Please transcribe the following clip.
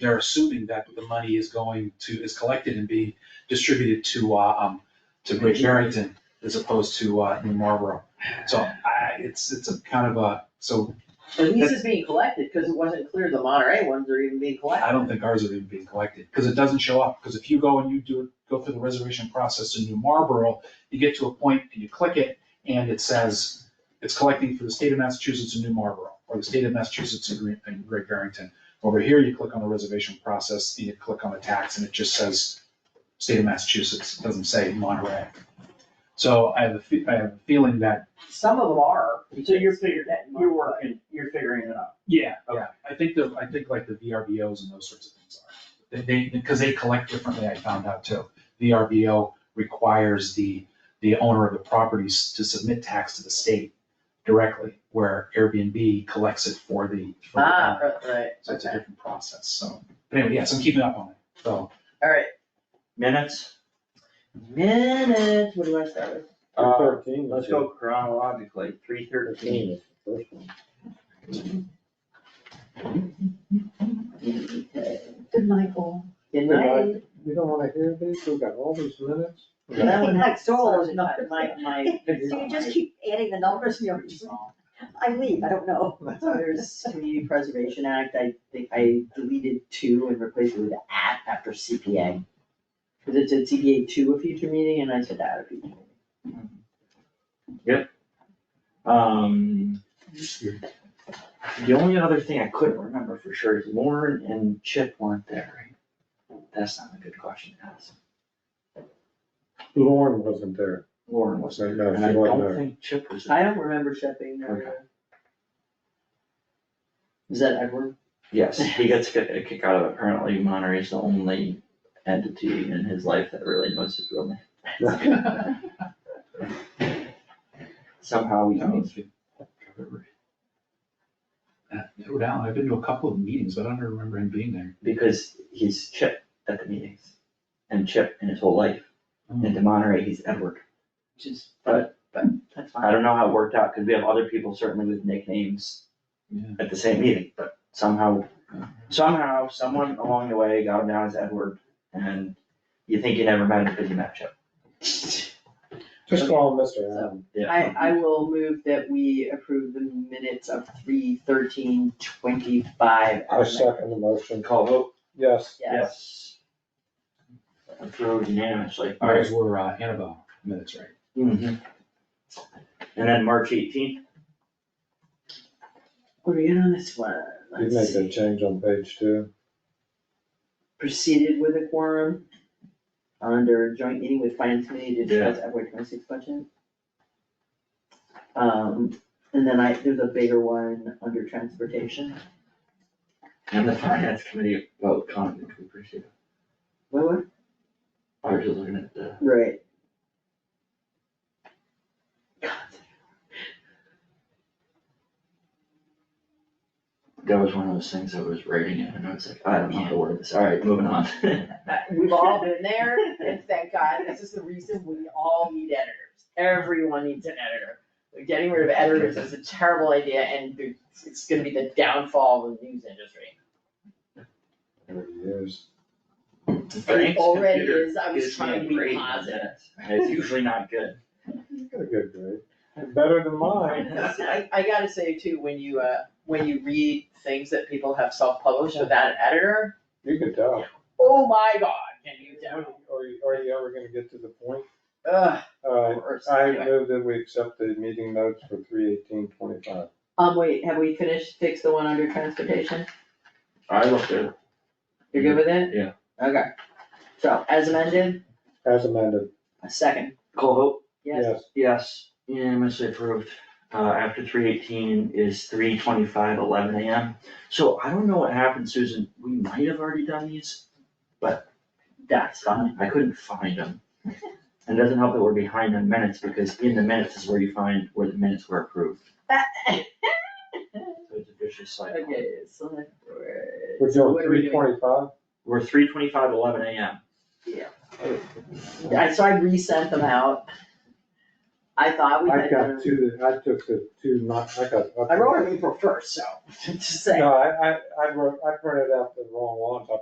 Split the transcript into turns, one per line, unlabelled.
they're assuming that the money is going to, is collected and being distributed to, uh, um, to Great Barrington as opposed to, uh, New Marlboro. So I, it's, it's a kind of a, so
At least it's being collected, cause it wasn't clear the Monterey ones are even being collected.
I don't think ours are even being collected, because it doesn't show up, because if you go and you do, it- go through the reservation process in New Marlboro, you get to a point, and you click it, and it says, it's collecting for the state of Massachusetts in New Marlboro, or the state of Massachusetts in Great, in Great Barrington. Over here, you click on the reservation process, and you click on the tax, and it just says, state of Massachusetts, it doesn't say Monterey. So I have a, fe- I have a feeling that,
Some of them are.
So you're figuring,
that
you're working, you're figuring it out.
yeah, yeah, I think the, I think like the VRBOs and those sorts of things are. They- They, because they collect differently, I found out too. The RBO requires the, the owner of the properties to submit tax to the state directly, where Airbnb collects it for the. for the
Ah,
owner.
right, right,
So it's a
okay,
different process, so, but anyway, yes, I'm keeping up on it, so.
alright,
Minutes,
minutes, what do I start with?
uh,
Thirteen.
let's go chronologically, three thirteen.
Thirteen is the first one.
Good Michael.
Good
Good
night.
You don't wanna hear these, we got all these minutes.
That one,
Next door.
is not my, my.
So you just keep adding the numbers, and you're just, I leave, I don't know.
So there's Community Preservation Act, I think I deleted two and replaced it with at after CPA. Cause it said CPA to a future meeting and I said at a future meeting.
Um, the only other thing I couldn't remember for sure is Lauren and Chip weren't there, right? That's not a good question to ask.
Lauren wasn't there.
Lauren was there,
No, she
and I
wasn't
don't
there.
think Chip was there.
I don't remember shipping there. Is that Edward?
Yes, he gets ki- a kick out of it. Apparently Monterey's the only entity in his life that really knows his real name. Somehow he
Oh,
knows.
Uh, No doubt, I've been to a couple of meetings, but I don't remember him being there.
Because he's Chip at the meetings, and Chip in his whole life, and to Monterey, he's Edward.
Which is,
But- but
that's
I
fine.
don't know how it worked out, because we have other people certainly with nicknames
Yeah.
at the same meeting, but somehow, somehow, someone along the way got him down as Edward, and you think you never met him because you met Chip.
Just call him Mr. Allen.
Yeah.
I, I will move that we approve the minutes of three thirteen twenty-five.
I second the motion.
Call vote.
Yes.
Yes.
Approved unanimously.
Ours were uh, Annabelle minutes, right?
Mhm. And then March eighteenth,
What are you on this one?
You
Let's
made
see.
that change on page two.
Proceeded with a quorum under joint meeting with finance committee to discuss FY twenty-six budget. Um, and then I, there's a bigger one under transportation.
and the finance committee vote conduct, we appreciate it.
What, what?
I was just looking at the,
Right.
that was one of those things I was writing it, and I was like, I don't know how to word this, alright, moving on.
We've all been there, and thank God, this is the reason we all need editors. Everyone needs an editor. Getting rid of editors is a terrible idea, and it's- it's gonna be the downfall of the news industry.
Thirty years.
Frank's
It already
computer
is, I was
gives me a
trying to be
grade on
positive.
this, and It's usually not good.
You got a good grade. Better than mine.
I, I gotta say too, when you, uh, when you read things that people have self-published without an editor,
You could tell.
oh my god, can you
Are,
tell?
you- are you ever gonna get to the point?
Ugh,
Uh,
worse.
I
Anyway.
move that we accept the meeting notes for three eighteen twenty-five.
Um, wait, have we finished, fix the one under transportation?
I looked at it,
You're good with it?
Yeah.
Okay. So, as amended,
As amended,
a second,
call vote.
yes?
yes.
Yes, E unanimously approved. Uh, after three eighteen is three twenty-five, eleven AM. So I don't know what happened, Susan. We might have already done these.
That's fine.
I couldn't find them. And it doesn't help that we're behind on minutes because in the minutes is where you find where the minutes were approved. So it's a vicious cycle.
Okay, select board.
We're
So
doing
what are we
three twenty-five?
We're three twenty-five, eleven AM.
doing? I, so I resent them out. I thought we
I
had.
got two, that- I took the two, not, I got.
I wrote it April first, so, just saying.
No, I, I, I wrote, I printed out the wrong ones, I